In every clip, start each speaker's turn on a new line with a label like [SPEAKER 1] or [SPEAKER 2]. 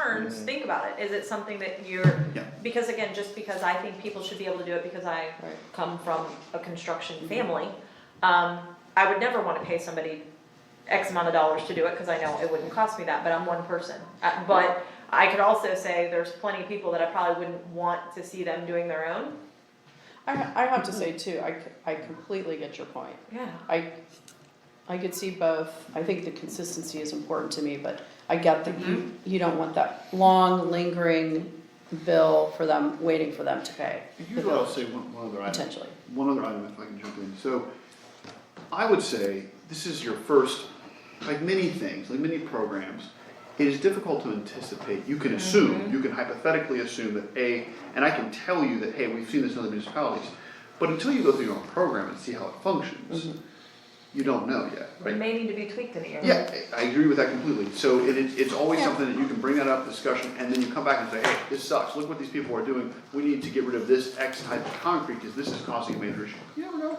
[SPEAKER 1] concerns,
[SPEAKER 2] Mhm.
[SPEAKER 1] think about it. Is it something that you're,
[SPEAKER 2] Yeah.
[SPEAKER 1] because again, just because I think people should be able to do it because I
[SPEAKER 3] Right.
[SPEAKER 1] come from a construction family, um, I would never wanna pay somebody X amount of dollars to do it, cause I know it wouldn't cost me that, but I'm one person. Uh, but I could also say there's plenty of people that I probably wouldn't want to see them doing their own.
[SPEAKER 3] I, I have to say too, I, c- I completely get your point.
[SPEAKER 1] Yeah.
[SPEAKER 3] I, I could see both. I think the consistency is important to me, but I get that you, you don't want that long lingering bill for them, waiting for them to pay,
[SPEAKER 2] Here's what I'll say, one, one other item,
[SPEAKER 3] potentially.
[SPEAKER 2] one other item if I can jump in. So, I would say, this is your first, like many things, like many programs, it is difficult to anticipate. You can assume, you can hypothetically assume that A, and I can tell you that, hey, we've seen this in other municipalities, but until you go through your own program and see how it functions, you don't know yet, right?
[SPEAKER 1] It may need to be tweaked in the area.
[SPEAKER 2] Yeah, I I agree with that completely. So it, it- it's always
[SPEAKER 3] Yeah.
[SPEAKER 2] something that you can bring that up, discussion, and then you come back and say, hey, this sucks, look what these people are doing. We need to get rid of this X type of concrete because this is causing a major issue. You never know.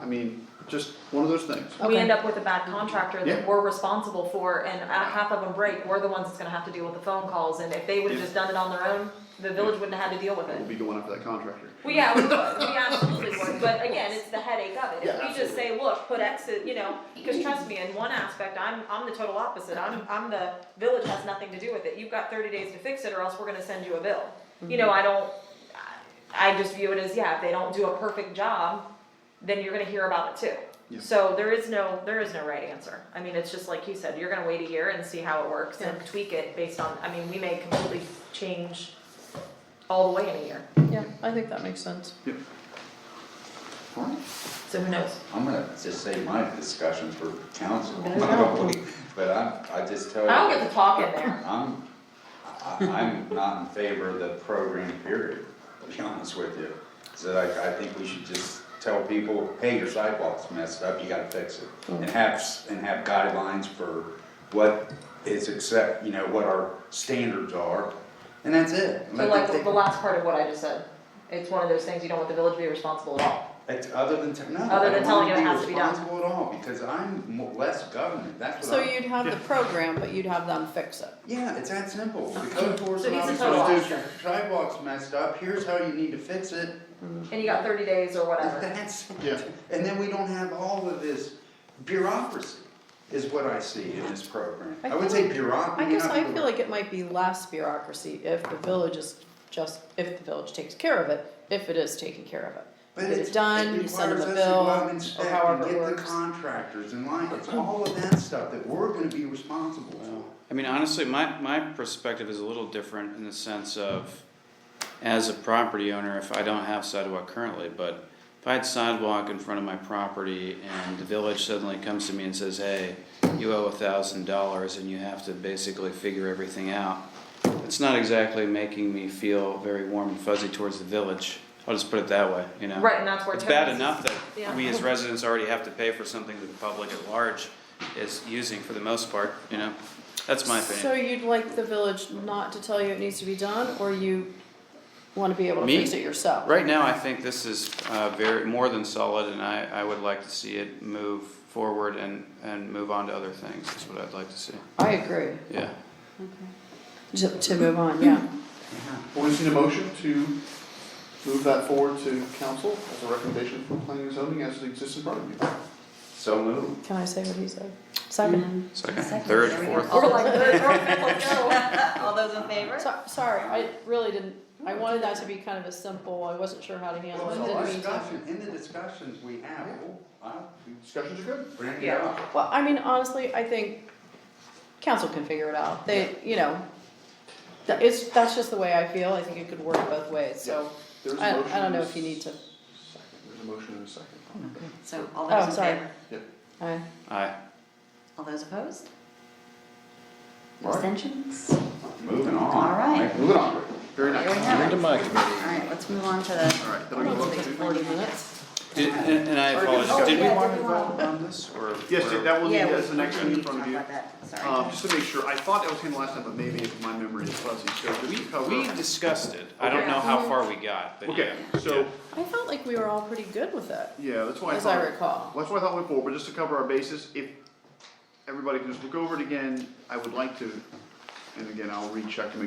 [SPEAKER 2] I mean, just one of those things.
[SPEAKER 1] We
[SPEAKER 3] Okay.
[SPEAKER 1] end up with a bad contractor
[SPEAKER 2] Yeah.
[SPEAKER 1] that we're responsible for and a- half of them break, we're the ones that's gonna have to deal with the phone calls and if they would've
[SPEAKER 2] Yeah.
[SPEAKER 1] just done it on their own, the village wouldn't have had to deal with it.
[SPEAKER 2] We'll be going after that contractor.
[SPEAKER 1] Well, yeah, we would, we absolutely would, but again, it's the headache of it,
[SPEAKER 2] Yeah,
[SPEAKER 1] if we just say, look, put X, in," you know, cause trust me, in one aspect, I'm, I'm the total opposite, I'm, I'm the, village has nothing to do with it, you've got thirty days to fix it or else we're gonna send you a bill. You know, I don't, I I just view it as, yeah, if they don't do a perfect job, then you're gonna hear about it
[SPEAKER 2] Yeah.
[SPEAKER 1] too. So there is no, there is no right answer, I mean, it's just like you said, you're gonna wait a year and see how it works and tweak it based on, I mean, we may completely change all the way in a year,
[SPEAKER 3] Yeah, I think that makes sense.
[SPEAKER 2] Yep. All right.
[SPEAKER 1] so who knows?
[SPEAKER 4] I'm gonna just say my discussion for council,
[SPEAKER 3] I know.
[SPEAKER 4] probably, but I'm, I just tell you.
[SPEAKER 1] I don't get to talk in there.
[SPEAKER 4] I'm, I, I'm not in favor of the program period, to be honest with you. So like, I think we should just tell people, hey, your sidewalk's messed up, you gotta fix it.
[SPEAKER 1] Mm.
[SPEAKER 4] And have, s- and have guidelines for what is accept, you know, what our standards are, and that's it.
[SPEAKER 1] So like the- the last part of what I just said, it's one of those things you don't want the village to be responsible at all.
[SPEAKER 4] It's other than, te- no,
[SPEAKER 1] Other
[SPEAKER 4] I
[SPEAKER 1] than
[SPEAKER 4] don't
[SPEAKER 1] telling
[SPEAKER 4] wanna
[SPEAKER 1] you it
[SPEAKER 4] be
[SPEAKER 1] has to be done.
[SPEAKER 4] responsible at all, because I'm mo- less government, that's what
[SPEAKER 3] So
[SPEAKER 4] I'm.
[SPEAKER 3] you'd have the program, but you'd have them fix it.
[SPEAKER 4] Yeah, it's that simple. The code
[SPEAKER 1] So he's
[SPEAKER 4] enforcement
[SPEAKER 1] a
[SPEAKER 4] officer
[SPEAKER 1] total
[SPEAKER 4] says your
[SPEAKER 1] officer.
[SPEAKER 4] sidewalk's messed up, here's how you need to fix it.
[SPEAKER 1] And you got thirty days or whatever.
[SPEAKER 4] That's,
[SPEAKER 2] Yeah.
[SPEAKER 4] and then we don't have all of this bureaucracy, is what I see in this program.
[SPEAKER 3] I
[SPEAKER 4] I would
[SPEAKER 3] feel
[SPEAKER 4] say
[SPEAKER 3] like-
[SPEAKER 4] bureaucracy.
[SPEAKER 3] I guess I feel like it might be less bureaucracy if the village is just, if the village takes care of it, if it is taking care of it.
[SPEAKER 4] But
[SPEAKER 3] Get
[SPEAKER 4] it's-
[SPEAKER 3] it done,
[SPEAKER 4] it
[SPEAKER 3] you send them a
[SPEAKER 4] requires us to go
[SPEAKER 3] bill,
[SPEAKER 4] out and
[SPEAKER 3] or
[SPEAKER 4] inspect and
[SPEAKER 3] however it
[SPEAKER 4] Get
[SPEAKER 3] works. Mm-hmm.
[SPEAKER 4] the contractors in line, it's all of that stuff that we're gonna be responsible for.
[SPEAKER 5] I mean, honestly, my, my perspective is a little different in the sense of, as a property owner, if I don't have sidewalk currently, but if I had sidewalk in front of my property and the village suddenly comes to me and says, hey, you owe a thousand dollars and you have to basically figure everything out, it's not exactly making me feel very warm and fuzzy towards the village. I'll just put it that way, you know?
[SPEAKER 1] Right, and that's where.
[SPEAKER 5] It's bad
[SPEAKER 1] Tony's-
[SPEAKER 5] enough
[SPEAKER 1] Yeah.
[SPEAKER 5] that we as residents already have to pay for something that the public at large is using for the most part, you know? That's my
[SPEAKER 3] So
[SPEAKER 5] opinion.
[SPEAKER 3] you'd like the village not to tell you it needs to be done, or you wanna be able to
[SPEAKER 5] Me?
[SPEAKER 3] fix it yourself?
[SPEAKER 5] Right now, I think this is uh, very, more than solid, and I, I would like to see it move forward and, and move on to other things, is what I'd like to see,
[SPEAKER 3] I agree,
[SPEAKER 5] yeah.
[SPEAKER 3] to, to move on, yeah.
[SPEAKER 2] Well, we've seen a motion to move that forward to council as a recommendation from planning and zoning as it exists in front of you.
[SPEAKER 4] So moved.
[SPEAKER 3] Can I say what he said? Second,
[SPEAKER 5] Second, third, fourth,
[SPEAKER 1] Or like third, fourth, fifth, no.
[SPEAKER 6] All those in
[SPEAKER 1] Mm-hmm.
[SPEAKER 6] favor?
[SPEAKER 3] so, sorry, I really didn't, I wanted that to be kind of a simple, I wasn't sure how to handle
[SPEAKER 4] Well,
[SPEAKER 3] it,
[SPEAKER 4] in
[SPEAKER 3] didn't
[SPEAKER 4] the
[SPEAKER 3] mean to.
[SPEAKER 4] discussion, in the discussions we have, I'll
[SPEAKER 2] Discussions are good.
[SPEAKER 4] bring it
[SPEAKER 1] Yeah.
[SPEAKER 4] up.
[SPEAKER 3] Well, I mean, honestly, I think council can figure it out, they, you know, that, it's, that's just the way I feel, I think it could work both ways, so,
[SPEAKER 2] There is a
[SPEAKER 3] I,
[SPEAKER 2] motion
[SPEAKER 3] I don't know
[SPEAKER 2] and a
[SPEAKER 3] if you need to,
[SPEAKER 2] second. There's a motion and a second.
[SPEAKER 6] So all
[SPEAKER 3] Oh,
[SPEAKER 6] those in
[SPEAKER 3] sorry.
[SPEAKER 6] favor?
[SPEAKER 3] I,
[SPEAKER 5] aye.
[SPEAKER 6] All those opposed?
[SPEAKER 4] Right.
[SPEAKER 6] Abstentions?
[SPEAKER 4] Moving on.
[SPEAKER 6] All right.
[SPEAKER 4] Like,
[SPEAKER 2] Moving on, very
[SPEAKER 6] There
[SPEAKER 2] nice.
[SPEAKER 6] we have it.
[SPEAKER 2] my committee.
[SPEAKER 6] All right, let's move on to the.
[SPEAKER 2] All right, then
[SPEAKER 3] I
[SPEAKER 2] we
[SPEAKER 3] don't
[SPEAKER 2] go
[SPEAKER 3] think
[SPEAKER 2] to.
[SPEAKER 3] it's forty minutes.
[SPEAKER 5] Did- And and I
[SPEAKER 6] Oh,
[SPEAKER 5] apologize, did we
[SPEAKER 6] yeah,
[SPEAKER 5] want to
[SPEAKER 6] did we want-
[SPEAKER 5] vote on this, or?
[SPEAKER 2] Yes,
[SPEAKER 5] or-
[SPEAKER 2] that will be,
[SPEAKER 6] Yeah,
[SPEAKER 2] that's the
[SPEAKER 6] we-
[SPEAKER 2] next
[SPEAKER 6] we
[SPEAKER 2] thing in
[SPEAKER 6] need to
[SPEAKER 2] front of
[SPEAKER 6] talk
[SPEAKER 2] you.
[SPEAKER 6] about that.
[SPEAKER 2] Um,
[SPEAKER 6] Sorry.
[SPEAKER 2] just to make sure, I thought that was handled last time, but maybe if my memory is fuzzy, so did we cover?
[SPEAKER 5] We discussed it, I don't know how far we got, but
[SPEAKER 2] Okay,
[SPEAKER 5] yeah.
[SPEAKER 2] so,
[SPEAKER 3] I felt like we were all pretty good with it,
[SPEAKER 2] yeah, that's why I
[SPEAKER 3] as
[SPEAKER 2] thought.
[SPEAKER 3] I recall.
[SPEAKER 2] That's why I thought went forward, but just to cover our bases, if everybody can just look over it again, I would like to, and again, I'll recheck to make